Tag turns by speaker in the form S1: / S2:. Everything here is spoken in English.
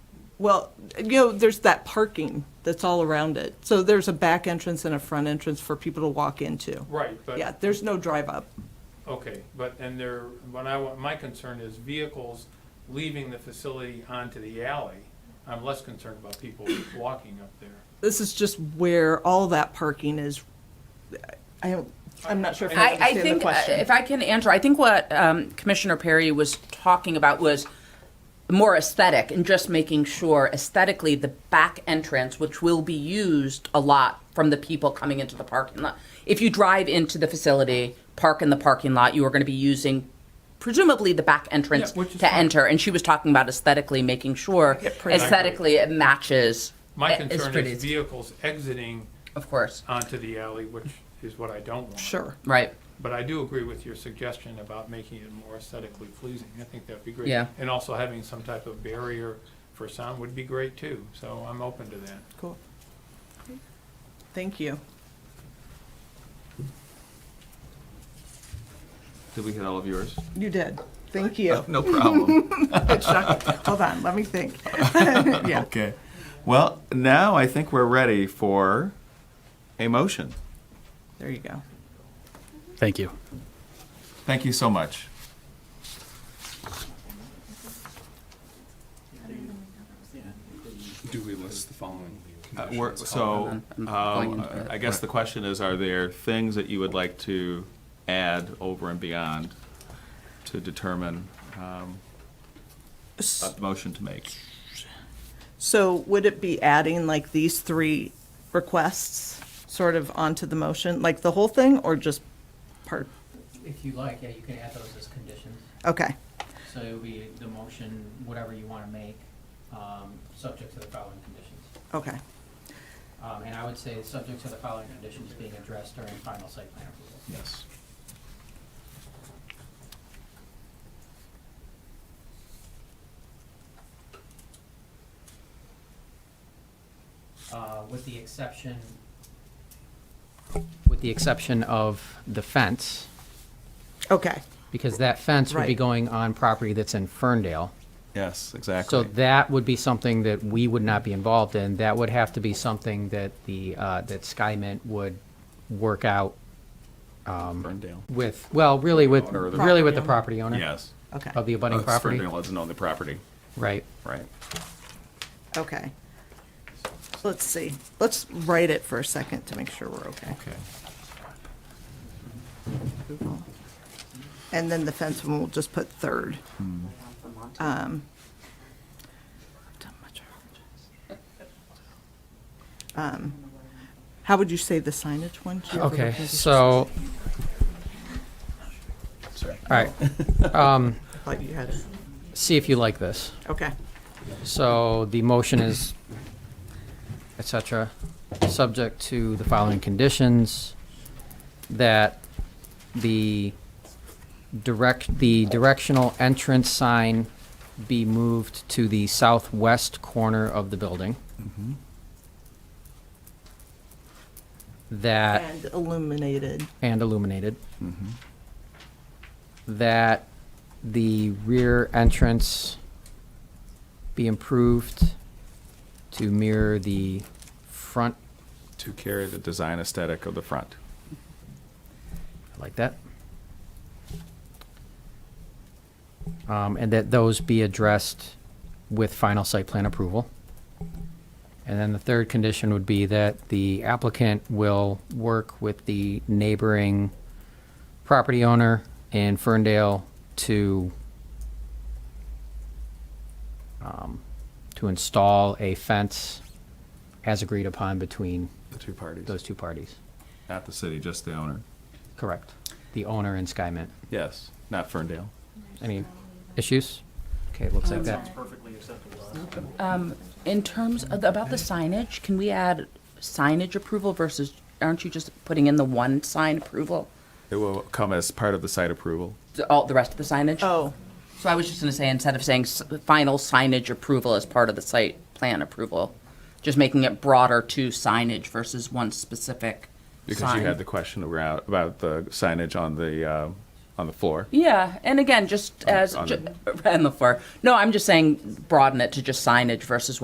S1: Well, you know, there's that parking that's all around it. So there's a back entrance and a front entrance for people to walk into.
S2: Right, but.
S1: Yeah, there's no drive up.
S2: Okay, but, and there, what I, want- my concern is vehicles leaving the facility onto the alley. I'm less concerned about people walking up there.
S1: This is just where all that parking is. I don't, I'm not sure if I
S2: I-
S3: I, I
S1: understand the
S3: think, uh,
S1: question.
S3: if I can answer, I think what um, Commissioner Perry was talking about was more aesthetic and just making sure aesthetically the back entrance, which will be used a lot from the people coming into the parking lot. If you drive into the facility, park in the parking lot, you are going to be using presumably the back entrance
S2: Yeah, which is
S3: to
S2: fine.
S3: enter. And she was talking about aesthetically, making sure
S1: pretty.
S3: aesthetically it matches.
S2: My
S3: it- it's
S2: concern
S3: pretty,
S2: is vehicles exiting
S3: Of course,
S2: onto the alley, which is what I don't want.
S1: Sure.
S3: right.
S2: But I do agree with your suggestion about making it more aesthetically pleasing. I think that'd be great.
S3: Yeah.
S2: And also having some type of barrier for sound would be great too, so I'm open to that.
S1: Cool. Thank you.
S4: Did we hit all of yours?
S1: You did. Thank you.
S4: No problem.
S1: Good shot. Hold on, let me think. Yeah.
S4: Okay. Well, now I think we're ready for a motion.
S1: There you go.
S5: Thank you.
S4: Thank you so much.
S6: Do we list the following
S4: Uh,
S6: conditions?
S4: we're- So,
S3: I'm
S4: um,
S3: going into it.
S4: I guess the question is, are there things that you would like to add over and beyond to determine um, a motion to make?
S1: So would it be adding like these three requests sort of onto the motion, like the whole thing or just part?
S7: If you like, yeah, you can add those as conditions.
S1: Okay,
S7: So it would be the motion, whatever you want to make, um, subject to the following conditions.
S1: okay.
S7: Um, And I would say, subject to the following conditions being addressed during final site plan approval.
S4: Yes.
S7: Uh, With the exception,
S8: with the exception of the fence,
S1: Okay,
S8: because that fence would be
S1: Right.
S8: going on property that's in Ferndale.
S4: Yes, exactly.
S8: So that would be something that we would not be involved in. That would have to be something that the, uh, that SkyMint would work out
S4: Ferndale.
S8: with, well, really with,
S4: Owner of the-
S8: really with the property owner.
S4: Yes.
S1: okay,
S8: Of the abutting
S4: Uh,
S8: property,
S4: Ferndale doesn't own the property,
S8: right.
S4: right?
S1: okay. Let's see, let's write it for a second to make sure we're okay.
S4: Okay.
S1: And then the fence one, we'll just put third. Um, Um, How would you say the signage one? Do you have a
S8: Okay,
S1: recommendation?
S8: so. All right. Um,
S1: Thought you had it.
S8: see if you like this.
S1: Okay,
S8: So the motion is, et cetera, subject to the following conditions, that the direct, the directional entrance sign be moved to the southwest corner of the building. Mm-hmm. That
S1: and illuminated.
S8: and illuminated. That the rear entrance be improved to mirror the front,
S4: To carry the design aesthetic of the front.
S8: I like that. Um, and that those be addressed with final site plan approval. And then the third condition would be that the applicant will work with the neighboring property owner in Ferndale to um, to install a fence as agreed upon between
S4: The two parties.
S8: those two parties.
S4: Not the city, just the owner.
S8: Correct. The owner and SkyMint.
S4: Yes, not Ferndale.
S8: Any issues? Okay, it looks like that.
S3: Um, in terms of, about the signage, can we add signage approval versus, aren't you just putting in the one sign approval?
S4: It will come as part of the site approval.
S3: The- All, the rest of the signage?
S1: Oh,
S3: So I was just gonna say, instead of saying s- final signage approval as part of the site plan approval, just making it broader to signage versus one specific
S4: Because you
S3: sign.
S4: had the question around, about the signage on the, uh, on the floor.
S3: Yeah, and again, just as,
S4: on
S3: ju- on the floor. No, I'm just saying broaden it to just signage versus